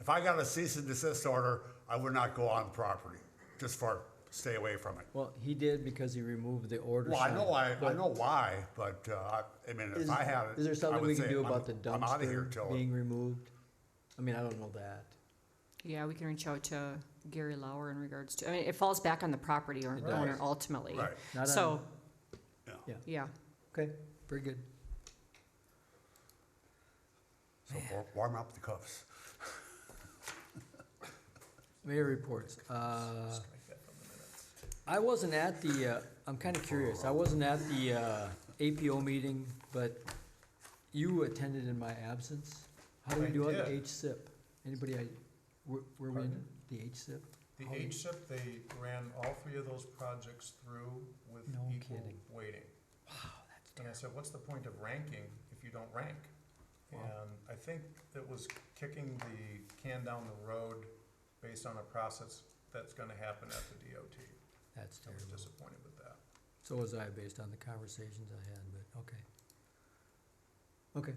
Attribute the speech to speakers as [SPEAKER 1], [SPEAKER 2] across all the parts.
[SPEAKER 1] If I got a cease and desist order, I would not go on the property, just for, stay away from it.
[SPEAKER 2] Well, he did because he removed the order
[SPEAKER 1] Well, I
[SPEAKER 2] sign.
[SPEAKER 1] know, I, I
[SPEAKER 2] but
[SPEAKER 1] know why, but, uh, I mean, if
[SPEAKER 2] is-
[SPEAKER 1] I had it.
[SPEAKER 2] Is there
[SPEAKER 1] I
[SPEAKER 2] something
[SPEAKER 1] would
[SPEAKER 2] we can
[SPEAKER 1] say,
[SPEAKER 2] do
[SPEAKER 1] I'm-
[SPEAKER 2] about the
[SPEAKER 1] I'm outta here till-
[SPEAKER 2] dumpster being removed? I mean, I don't know that.
[SPEAKER 3] Yeah, we can reach out to Gary Lauer in regards to, I mean, it falls back on the property or-
[SPEAKER 2] It does.
[SPEAKER 3] owner ultimately.
[SPEAKER 1] Right,
[SPEAKER 2] Not on-
[SPEAKER 3] So,
[SPEAKER 1] yeah.
[SPEAKER 3] yeah,
[SPEAKER 2] Okay, very good.
[SPEAKER 1] So wa- warm up the cuffs.
[SPEAKER 2] Mayor reports. Uh, I wasn't at the, uh, I'm kind of curious, I wasn't at the uh, APO meeting, but you attended in my absence. How do we
[SPEAKER 4] I
[SPEAKER 2] do on the
[SPEAKER 4] did.
[SPEAKER 2] HSIP? Anybody, I- were were we in the HSIP?
[SPEAKER 4] The
[SPEAKER 2] How-
[SPEAKER 4] HSIP, they ran all three of those projects through with
[SPEAKER 2] No
[SPEAKER 4] equal
[SPEAKER 2] kidding.
[SPEAKER 4] weighting. And I said, what's the point of ranking if you don't rank?
[SPEAKER 2] Wow.
[SPEAKER 4] And I think it was kicking the can down the road based on a process that's gonna happen at the DOT.
[SPEAKER 2] That's
[SPEAKER 4] I was
[SPEAKER 2] terrible.
[SPEAKER 4] disappointed with that.
[SPEAKER 2] So was I, based on the conversations I had, but, okay. Okay,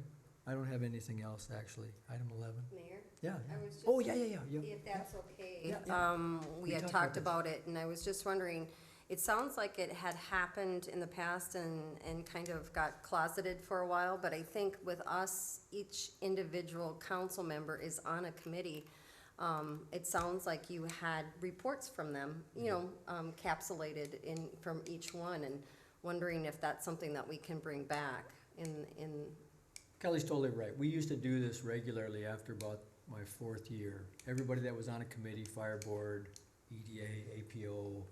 [SPEAKER 2] I don't have anything else, actually. Item eleven,
[SPEAKER 5] Mayor,
[SPEAKER 2] yeah. yeah.
[SPEAKER 5] I was just.
[SPEAKER 2] Oh, yeah, yeah, yeah, yeah.
[SPEAKER 5] If that's okay,
[SPEAKER 2] Yeah, yeah.
[SPEAKER 5] um,
[SPEAKER 2] We
[SPEAKER 5] we had
[SPEAKER 2] talked about
[SPEAKER 5] talked
[SPEAKER 2] this.
[SPEAKER 5] about it, and I was just wondering, it sounds like it had happened in the past and, and kind of got closeted for a while, but I think with us, each individual council member is on a committee. Um, it sounds like you had reports from them, you know, um, capsulated in, from each one, and wondering if that's something that we can bring back in, in,
[SPEAKER 2] Kelly's totally right. We used to do this regularly after about my fourth year. Everybody that was on a committee, fire board, E EDA, APO,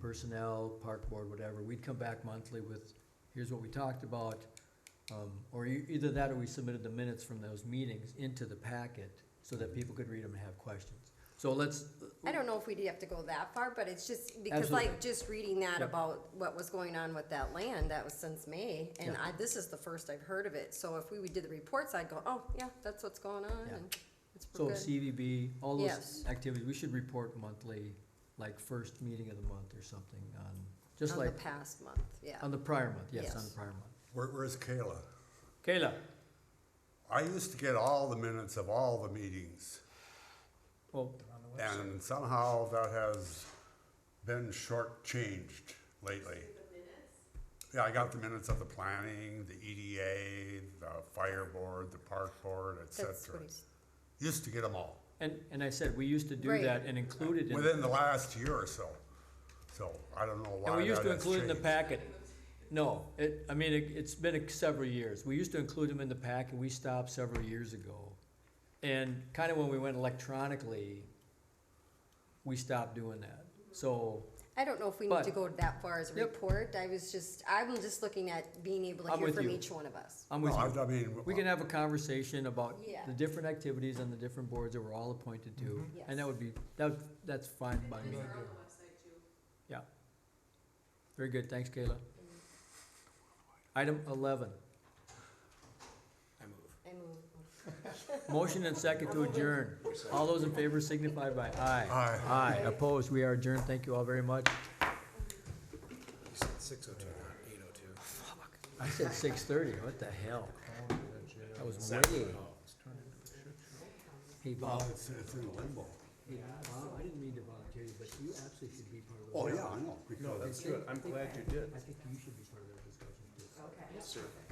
[SPEAKER 2] personnel, park board, whatever, we'd come back monthly with, here's what we talked about. Um, or e- either that or we submitted the minutes from those meetings into the packet so that people could read them and have questions. So let's,
[SPEAKER 5] I don't know if we'd have to go that far, but it's just, because
[SPEAKER 2] Absolutely.
[SPEAKER 5] like, just reading that
[SPEAKER 2] Yeah.
[SPEAKER 5] about what was going on with that land, that was since May, and
[SPEAKER 2] Yeah.
[SPEAKER 5] I, this is the first I've heard of it, so if we would do the reports, I'd go, oh, yeah, that's what's going on,
[SPEAKER 2] Yeah.
[SPEAKER 5] and it's
[SPEAKER 2] So
[SPEAKER 5] we're good.
[SPEAKER 2] CVB, all those
[SPEAKER 5] Yes.
[SPEAKER 2] activities, we should report monthly, like first meeting of the month or something on, just
[SPEAKER 5] On the
[SPEAKER 2] like,
[SPEAKER 5] past month, yeah.
[SPEAKER 2] on the prior month, yes, on the
[SPEAKER 5] Yes.
[SPEAKER 2] prior month.
[SPEAKER 1] Where, where's Kayla?
[SPEAKER 2] Kayla,
[SPEAKER 1] I used to get all the minutes of all the meetings,
[SPEAKER 2] well,
[SPEAKER 4] On the website.
[SPEAKER 1] and somehow that has been shortchanged lately. Yeah, I got the minutes of the planning, the EDA, the fire board, the park board, et
[SPEAKER 5] That's
[SPEAKER 1] cetera.
[SPEAKER 5] what he's,
[SPEAKER 1] Used to get them all,
[SPEAKER 2] and, and I said, we used to do
[SPEAKER 5] Right.
[SPEAKER 2] that and included in,
[SPEAKER 1] within the last year or so. So I don't know why
[SPEAKER 2] and we used
[SPEAKER 1] that
[SPEAKER 2] to
[SPEAKER 1] has
[SPEAKER 2] include in the
[SPEAKER 1] changed.
[SPEAKER 2] packet. No, it, I mean, it, it's been a- several years. We used to include them in the packet, we stopped several years ago. And kinda when we went electronically, we stopped doing that. So,
[SPEAKER 5] I don't know if we
[SPEAKER 2] But-
[SPEAKER 5] need to go that far as a
[SPEAKER 2] Yep.
[SPEAKER 5] report, I was just, I'm just looking at being able to
[SPEAKER 2] I'm
[SPEAKER 5] hear
[SPEAKER 2] with
[SPEAKER 5] from
[SPEAKER 2] you.
[SPEAKER 5] each one of us.
[SPEAKER 2] I'm
[SPEAKER 1] No,
[SPEAKER 2] with you.
[SPEAKER 1] I I mean.
[SPEAKER 2] We can have a conversation about
[SPEAKER 5] Yeah.
[SPEAKER 2] the different activities on the different boards that we're all appointed to, and that
[SPEAKER 5] Yes.
[SPEAKER 2] would be, that, would- that's fine by me. Yeah. Very good, thanks Kayla. Item eleven,
[SPEAKER 5] I mean,
[SPEAKER 2] motion and second to adjourn. All those in favor signify by aye.
[SPEAKER 1] Aye.
[SPEAKER 2] Aye, opposed, we are adjourned, thank you oh all very much. You said six oh two, eight oh two. I said six thirty, what the hell? That was way. Hey Bob.
[SPEAKER 1] it's, it's in limbo.
[SPEAKER 2] Hey, Bob, I didn't mean to volunteer you, but you absolutely should be part of the.
[SPEAKER 1] Oh, yeah, I know. because-
[SPEAKER 2] that's good, I'm glad you did. I think you should be part of that discussion too. Okay.